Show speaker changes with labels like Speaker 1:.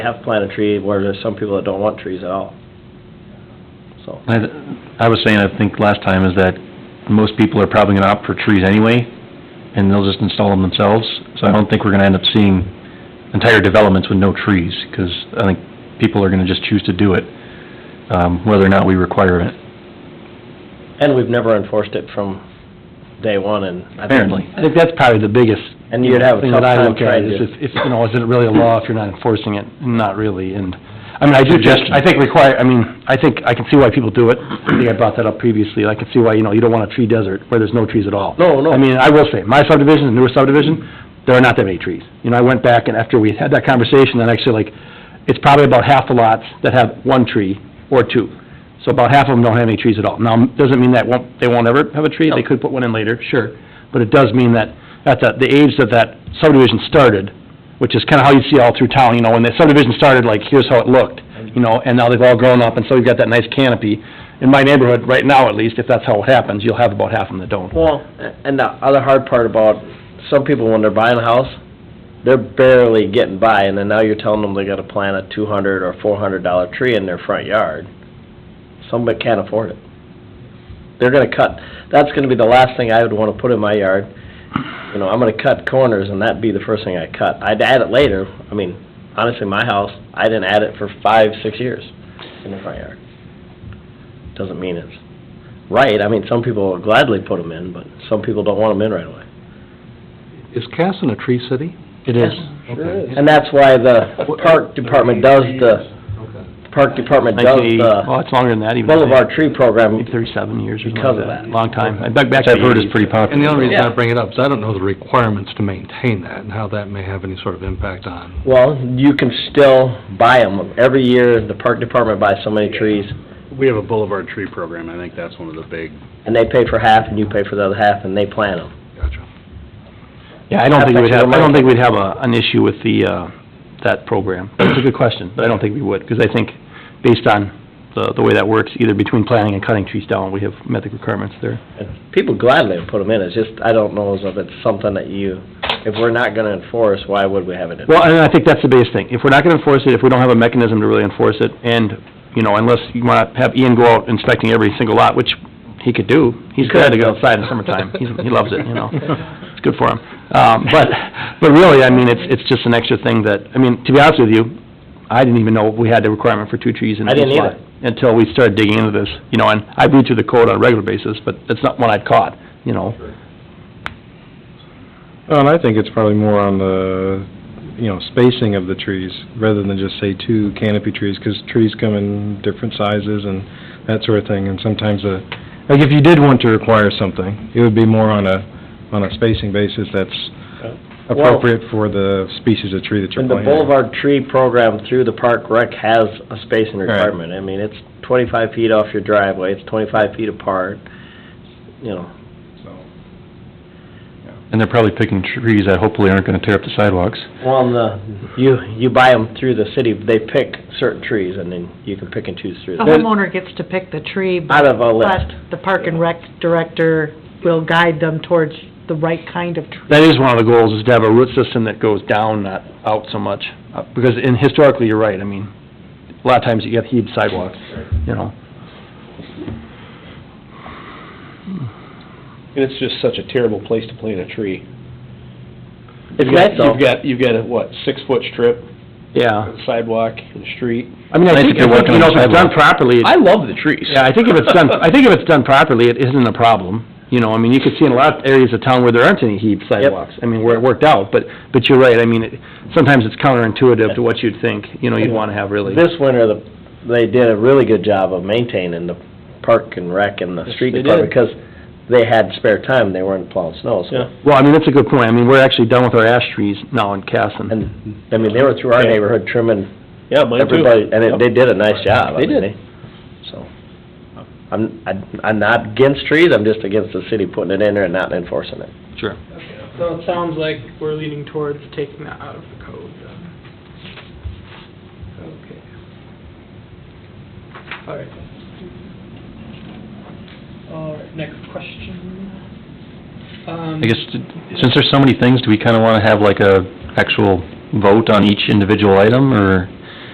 Speaker 1: have planted a tree where there's some people that don't want trees at all. So,
Speaker 2: I, I was saying, I think last time, is that most people are probably gonna opt for trees anyway, and they'll just install them themselves, so I don't think we're gonna end up seeing entire developments with no trees, 'cause I think people are gonna just choose to do it, um, whether or not we require it,
Speaker 1: and we've never enforced it from day one and. I think-
Speaker 2: apparently.
Speaker 3: I think that's probably the biggest.
Speaker 1: And you'd have a
Speaker 3: thing
Speaker 1: tough
Speaker 3: that I
Speaker 1: time
Speaker 3: look at
Speaker 1: trying
Speaker 3: is
Speaker 1: to-
Speaker 3: If, if, you know, is it really a law if you're not enforcing it? Not really, and, I mean, I do, just
Speaker 2: Suggestion.
Speaker 3: I think require, I mean, I think, I can see why people do it. I think I brought that up previously, I can see why, you know, you don't want a tree desert where there's no trees at all.
Speaker 1: No, no.
Speaker 3: I mean, I will say, my subdivision, the newer subdivision, there are not that many trees. You know, I went back and after we had that conversation, and actually like, it's probably about half the lots that have one tree or two. So about half of them don't have any trees at all. Now, doesn't mean that won't, they won't ever have a tree, they could put one in later, sure. But it does mean that at the, the age that that subdivision started, which is kinda how you see all through town, you know, when the subdivision started, like, here's how it looked, you know, and now they've all grown up, and so you've got that nice canopy. In my neighborhood, right now at least, if that's how it happens, you'll have about half of them that don't.
Speaker 1: Well, a- and the other hard part about, some people when they're buying a house, they're barely getting by, and then now you're telling them they gotta plant a two hundred or four hundred dollar tree in their front yard. Somebody can't afford it. They're gonna cut, that's gonna be the last thing I would wanna put in my yard. You know, I'm gonna cut corners, and that'd be the first thing I cut. I'd add it later, I mean, honestly, my house, I didn't add it for five, six years in the front yard. Doesn't mean it's right, I mean, some people will gladly put them in, but some people don't want them in right away.
Speaker 4: Is Casson a tree city?
Speaker 3: It is.
Speaker 4: Okay.
Speaker 1: And that's why the park department does the,
Speaker 4: Okay.
Speaker 1: park department does the
Speaker 3: Well, it's longer than that even.
Speaker 1: boulevard tree program,
Speaker 3: Maybe Thirty-seven years or something
Speaker 1: Because of
Speaker 3: like that.
Speaker 1: that.
Speaker 3: Long time. I back back
Speaker 2: Which
Speaker 3: to
Speaker 2: I've heard
Speaker 3: the
Speaker 2: is pretty popular.
Speaker 4: And the only reason I
Speaker 1: Yeah.
Speaker 4: bring it up is I don't know the requirements to maintain that and how that may have any sort of impact on.
Speaker 1: well, you can still buy them. Every year, the park department buys so many trees,
Speaker 5: We have a boulevard tree program, I think that's one of the big,
Speaker 1: and they pay for half, and you pay for the other half, and they plant them.
Speaker 4: Gotcha.
Speaker 3: Yeah, I don't think we'd
Speaker 1: That's
Speaker 3: have,
Speaker 1: actually
Speaker 3: I don't think we'd have a, an issue with the, uh, that program. It's a good question, but I don't think we would, because I think based on the, the way that works, either between planting and cutting trees down, we have met the requirements there.
Speaker 1: And people gladly put them in, it's just, I don't know as if it's something that you, if we're not gonna enforce, why would we have it in?
Speaker 3: Well, and I think that's the biggest thing. If we're not gonna enforce it, if we don't have a mechanism to really enforce it, and, you know, unless you wanna have Ian go out inspecting every single lot, which he could do. He's glad to go outside in the summertime. He's, he loves it, you know? It's good for him. Um, but, but really, I mean, it's, it's just an extra thing that, I mean, to be honest with you, I didn't even know we had the requirement for two trees in
Speaker 1: I
Speaker 3: each lot.
Speaker 1: didn't either.
Speaker 3: Until we started digging into this, you know, and I read through the code on a regular basis, but it's not one I'd caught, you know?
Speaker 6: Well, and I think it's probably more on the, you know, spacing of the trees, rather than just say two canopy trees, because trees come in different sizes and that sort of thing, and sometimes the, like, if you did want to require something, it would be more on a, on a spacing basis that's appropriate for the species of tree that you're
Speaker 1: And the
Speaker 6: planting.
Speaker 1: Boulevard Tree Program through the Park Rec has a spacing requirement. I mean, it's twenty-five feet off your driveway, it's twenty-five feet apart, you know.
Speaker 2: And they're probably picking trees that hopefully aren't gonna tear up the sidewalks.
Speaker 1: Well, and the, you, you buy them through the city, they pick certain trees, and then you can pick and choose through.
Speaker 7: The
Speaker 1: them.
Speaker 7: homeowner gets to pick the tree,
Speaker 1: Out
Speaker 7: but
Speaker 1: of a
Speaker 7: but
Speaker 1: list.
Speaker 7: the park and rec director will guide them towards the right kind of tree.
Speaker 3: That is one of the goals, is to have a root system that goes down, not out so much. Uh, Because in, historically, you're right, I mean, a lot of times you have heaved sidewalks, you know?
Speaker 8: And it's just such a terrible place to plant a tree.
Speaker 1: It's
Speaker 8: You've got-
Speaker 1: nice though.
Speaker 8: You've got, you've got a, what, six-foot strip,
Speaker 3: Yeah.
Speaker 8: sidewalk, and street.
Speaker 3: I mean, I
Speaker 2: Nice
Speaker 3: think,
Speaker 2: if
Speaker 3: I
Speaker 2: you're
Speaker 3: think,
Speaker 2: working
Speaker 3: you know,
Speaker 2: on
Speaker 3: if it's done
Speaker 2: sidewalks.
Speaker 3: properly, it-
Speaker 8: I love the trees.
Speaker 3: yeah, I think if it's done, I think if it's done properly, it isn't a problem. You know, I mean, you could see in a lot of areas of town where there aren't any heaved sidewalks. I mean, where it worked out, but, but you're right, I mean, it- sometimes it's counterintuitive to what you'd think, you know, you'd wanna have really.
Speaker 1: This winter, the, they did a really good job of maintaining the Park and Rec and the street
Speaker 8: they
Speaker 1: department, because they had spare time, they weren't plowing snow, so.
Speaker 3: Well, I mean, that's a good point. I mean, we're actually done with our ash trees now in Casson.
Speaker 1: And, I mean, they were through our
Speaker 8: Yeah.
Speaker 1: neighborhood trimming
Speaker 8: Yeah, mine too.
Speaker 1: Everybody, and it- they did a nice job. I
Speaker 8: They
Speaker 1: mean,
Speaker 8: did.
Speaker 1: So, I'm, I- I'm not against trees, I'm just against the city putting it in there and not enforcing it.
Speaker 9: So it sounds like we're leaning towards taking that out of the code then. Okay. All right. All right, next question. Um,
Speaker 2: I guess, since there's so many things, do we kinda wanna have like a actual vote on each individual item, or?